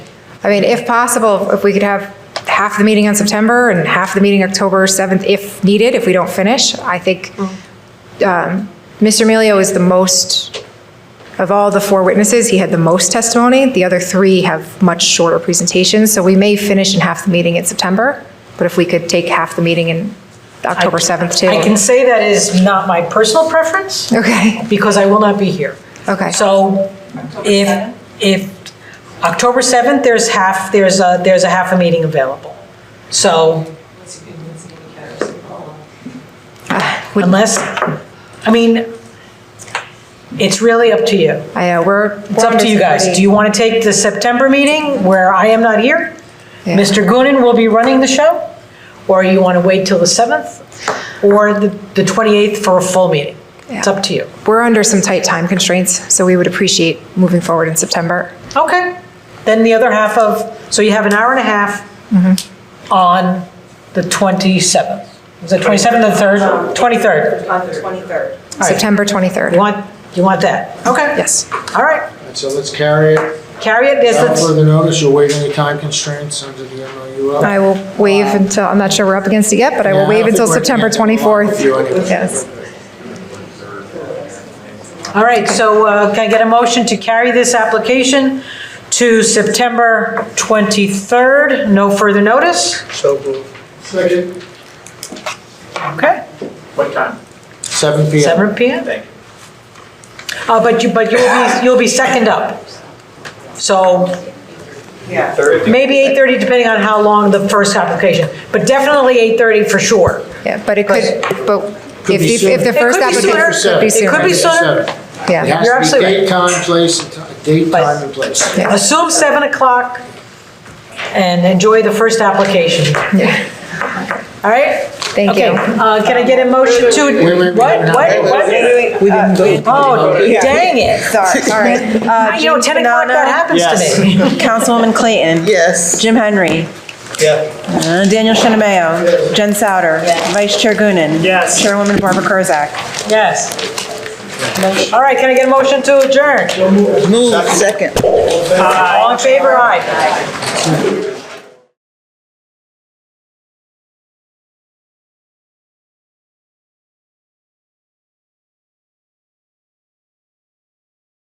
I mean, if possible, if we could have half the meeting on September and half the meeting October 7th, if needed, if we don't finish, I think Mm. um, Mr. Emilio is the most, of all the four witnesses, he had the most testimony. The other three have much shorter presentations, so we may finish in half the meeting in September, but if we could take half the meeting in October 7th too. I can say that is not my personal preference Okay, because I will not be here. okay. So if, if October 7th, there's half, there's a, there's a half a meeting available. So Would- unless, I mean, it's really up to you. I know, we're. It's up to you guys. Do you want to take the September meeting where I am not here? Yeah. Mr. Goonan will be running the show? Or you want to wait till the 7th? Or the the 28th for a full meeting? It's Yeah. up to you. We're under some tight time constraints, so we would appreciate moving forward in September. Okay, then the other half of, so you have an hour and a half Mm-hmm. on the 27th. Is it 27th or the 3rd? 23rd? On the 23rd. All right. September You 23rd. want, you want that? Okay. Yes. All right, And so let's carry it. carry it, yes, Without let's, further notice, you'll waive any time constraints under the MOU. I will waive until, I'm not sure we're up against it yet, but I will waive until September 24th. Yes. all right, so uh, can I get a motion to carry this application to September 23rd? No further notice? So moved. Second. Okay, What time? Seven P M. Seven PM? Thank you. Uh, But you, but you'll be, you'll be second up. So Yeah. Thursday? Maybe 8:30, depending on how long the first application, but definitely 8:30 for sure. Yeah, but it could, but Could if be you- if the sooner. first It could be applicant sooner. could be It sooner. could be sooner. Yeah. It has You're to be absolutely right. date, time, place, and ti- date, Place. time, and place. Yeah. Assume 7 o'clock and enjoy the first application, Yeah. all right? Thank Okay, you. uh, Can I get a motion wait, to, wait, what, wait. what, what? We didn't Oh, Yeah. dang it. Sorry, sorry. Uh, You know, Jean 10 o'clock, that Panana, happens to me. Councilwoman Clayton. Yes. Jim Henry. Yeah. uh, Daniel Shinameo. Jen Souter. Vice Chair Gunnin. Yes. Chairwoman Barbara Kurzak. Yes. All right, can I get a motion to adjourn? Move. Second. All in favor, aye.